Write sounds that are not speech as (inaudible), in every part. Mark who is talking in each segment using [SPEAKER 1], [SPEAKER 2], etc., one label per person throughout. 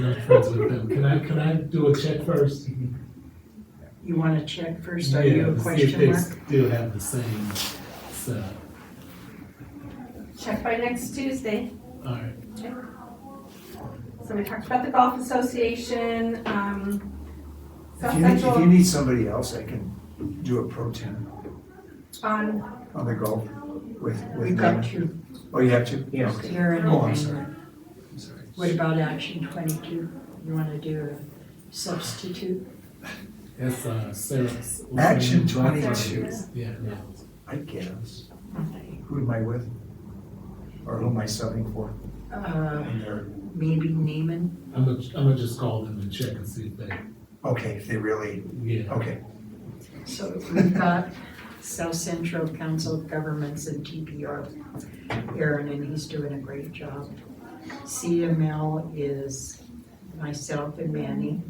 [SPEAKER 1] Not friends with them. Can I, can I do a check first?
[SPEAKER 2] You want to check first, are you a
[SPEAKER 1] Yeah, see if
[SPEAKER 2] question
[SPEAKER 1] they
[SPEAKER 2] mark?
[SPEAKER 1] Still have the same setup.
[SPEAKER 3] Check by next Tuesday.
[SPEAKER 1] All right.
[SPEAKER 3] So we talked about the golf association, um,
[SPEAKER 4] If
[SPEAKER 3] South
[SPEAKER 4] you, need- if you
[SPEAKER 3] Central
[SPEAKER 4] need somebody else, I can do a pro ten
[SPEAKER 3] on,
[SPEAKER 4] on the golf with, with
[SPEAKER 2] We've got
[SPEAKER 4] Nana.
[SPEAKER 2] two,
[SPEAKER 4] Oh, you have to?
[SPEAKER 5] Yes.
[SPEAKER 4] Okay.
[SPEAKER 2] Tara and
[SPEAKER 4] Oh, I'm sorry.
[SPEAKER 2] Nana.
[SPEAKER 4] I'm sorry.
[SPEAKER 2] What about action twenty-two? You want to do a substitute?
[SPEAKER 1] That's, uh, Sarah's.
[SPEAKER 4] Action
[SPEAKER 1] what's her name?
[SPEAKER 4] 22.
[SPEAKER 1] Yeah, no.
[SPEAKER 4] I get us. Who am I with? Or who am I subbing for?
[SPEAKER 2] Uh,
[SPEAKER 4] And they're-
[SPEAKER 2] maybe Neiman?
[SPEAKER 1] I'm gonna, I'm gonna just call them and check and see if they,
[SPEAKER 4] Okay, if they really,
[SPEAKER 1] yeah.
[SPEAKER 4] okay.
[SPEAKER 2] So we've got South Central Council of Governments and TPR. Aaron, and he's doing a great job. CML is myself and Manny.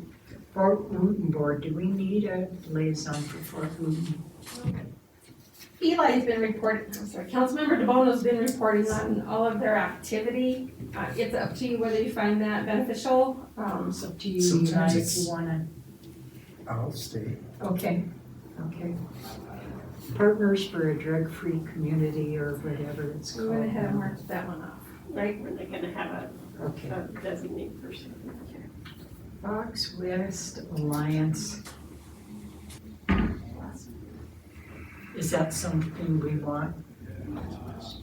[SPEAKER 2] Fort Wooton Board, do we need a liaison for Fort Wooton?
[SPEAKER 3] Eli's been reporting, I'm sorry, Councilmember DeBono's been reporting on all of their activity. Uh, it's up to you whether you find that beneficial. Um,
[SPEAKER 2] It's up to you, you
[SPEAKER 4] Sometimes
[SPEAKER 2] guys, if
[SPEAKER 4] it's-
[SPEAKER 2] you wanna.
[SPEAKER 4] I'll stay.
[SPEAKER 2] Okay, okay. Partners for a drug-free community or whatever it's
[SPEAKER 3] we
[SPEAKER 2] called.
[SPEAKER 3] went ahead and
[SPEAKER 2] now.
[SPEAKER 3] marked that one off.
[SPEAKER 6] Right, we're not gonna have a,
[SPEAKER 2] Okay.
[SPEAKER 6] a designated person.
[SPEAKER 2] Fox West Alliance. Is that something we want?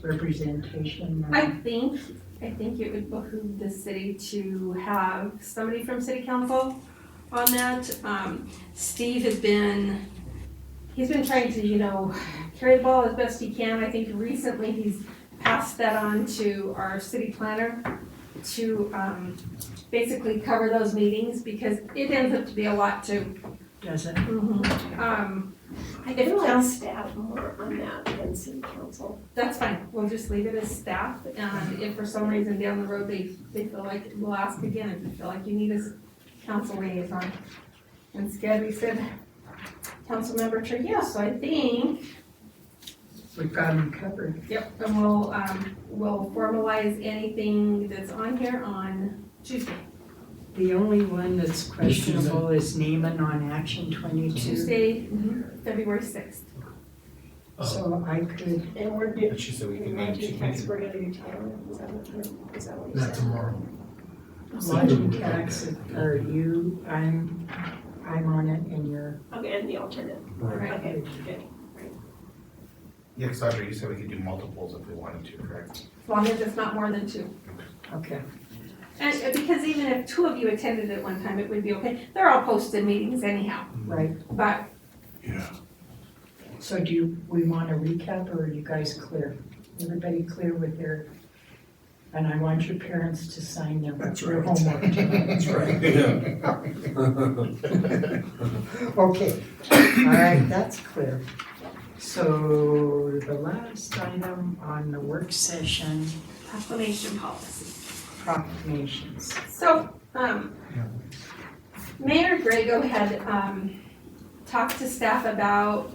[SPEAKER 2] Representation? or-
[SPEAKER 3] I think, I think it would behoove the city to have somebody from city council on that. Um, Steve has been, he's been trying to, you know, carry the ball as best he can. I think recently he's passed that on to our city planner to, um, basically cover those meetings because it ends up to be a lot to,
[SPEAKER 2] Doesn't,
[SPEAKER 3] um,
[SPEAKER 6] I
[SPEAKER 3] If
[SPEAKER 6] feel like
[SPEAKER 3] council-
[SPEAKER 6] staff more on that than city council.
[SPEAKER 3] That's fine, we'll just leave it as staff, and if for some reason down the road they, they feel like, we'll ask again, if you feel like you need us council liaison. And Scabby said, council member Trujillo, so I think,
[SPEAKER 2] we've got them covered.
[SPEAKER 3] yep, and we'll, um, we'll formalize anything that's on here on Tuesday.
[SPEAKER 2] The only one that's
[SPEAKER 1] Susan.
[SPEAKER 2] questionable is Neiman on Action 22.
[SPEAKER 3] Tuesday, February sixth.
[SPEAKER 1] Oh,
[SPEAKER 2] So I could,
[SPEAKER 6] And we're doing,
[SPEAKER 7] She said we
[SPEAKER 6] we
[SPEAKER 7] can
[SPEAKER 6] might
[SPEAKER 7] manage
[SPEAKER 6] do
[SPEAKER 7] it.
[SPEAKER 6] tax, we're gonna do town, is that what you're, is that what you're
[SPEAKER 1] not
[SPEAKER 6] saying?
[SPEAKER 1] tomorrow.
[SPEAKER 2] lodging tax, are you, I'm, I'm on it and you're,
[SPEAKER 6] Okay, and the alternate,
[SPEAKER 3] Right.
[SPEAKER 6] okay, good.
[SPEAKER 7] Yeah, because Audrey, you said we could do multiples if we wanted to, correct?
[SPEAKER 3] As long as it's not more than two.
[SPEAKER 2] okay.
[SPEAKER 3] And, uh, because even if two of you attended at one time, it would be okay, they're all posted meetings anyhow,
[SPEAKER 2] Right,
[SPEAKER 3] but
[SPEAKER 2] so do you, we want to recap or are you guys clear? Everybody clear with their, and I want your parents to sign their
[SPEAKER 4] That's
[SPEAKER 2] their
[SPEAKER 4] right.
[SPEAKER 2] homework tonight.
[SPEAKER 4] (laughs) That's right. (laughs)
[SPEAKER 2] (laughs) Okay, all right, that's clear. So the last item on the work session,
[SPEAKER 3] proclamation policy.
[SPEAKER 2] proclamations.
[SPEAKER 3] So, um, Mayor Grego had, um, talked to staff about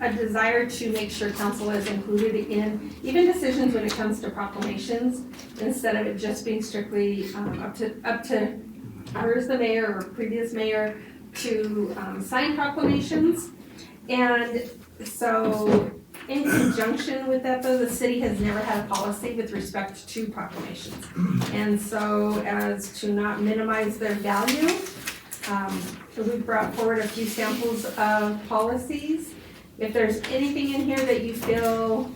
[SPEAKER 3] a desire to make sure council is included in even decisions when it comes to proclamations, instead of it just being strictly, um, up to, up to her as the mayor or previous mayor to, um, sign proclamations. And so, in conjunction with that, though, the city has never had a policy with respect to proclamations. And so as to not minimize their value, um, we brought forward a few samples of policies. If there's anything in here that you feel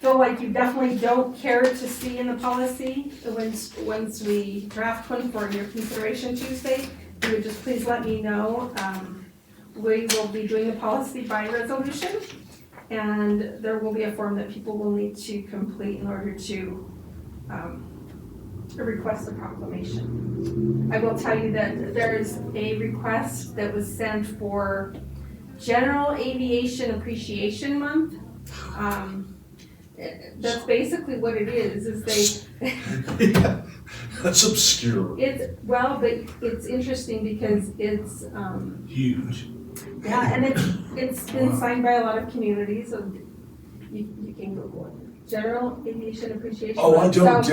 [SPEAKER 3] feel like you definitely don't care to see in the policy, once, once we draft one for your consideration Tuesday, you would just please let me know. Um, we will be doing the policy by resolution. And there will be a form that people will need to complete in order to um, request a proclamation. I will tell you that there's a request that was sent for General Aviation Appreciation Month. Um, That's basically what it is, is they,
[SPEAKER 8] (laughs) That's obscure.
[SPEAKER 3] it's, well, but it's interesting because it's, um,
[SPEAKER 8] Huge.
[SPEAKER 3] Yeah, and it's, it's been signed by a lot of communities, so you, you can Google it. General Aviation Appreciation.
[SPEAKER 8] Oh, I
[SPEAKER 3] Month.
[SPEAKER 8] don't
[SPEAKER 3] So-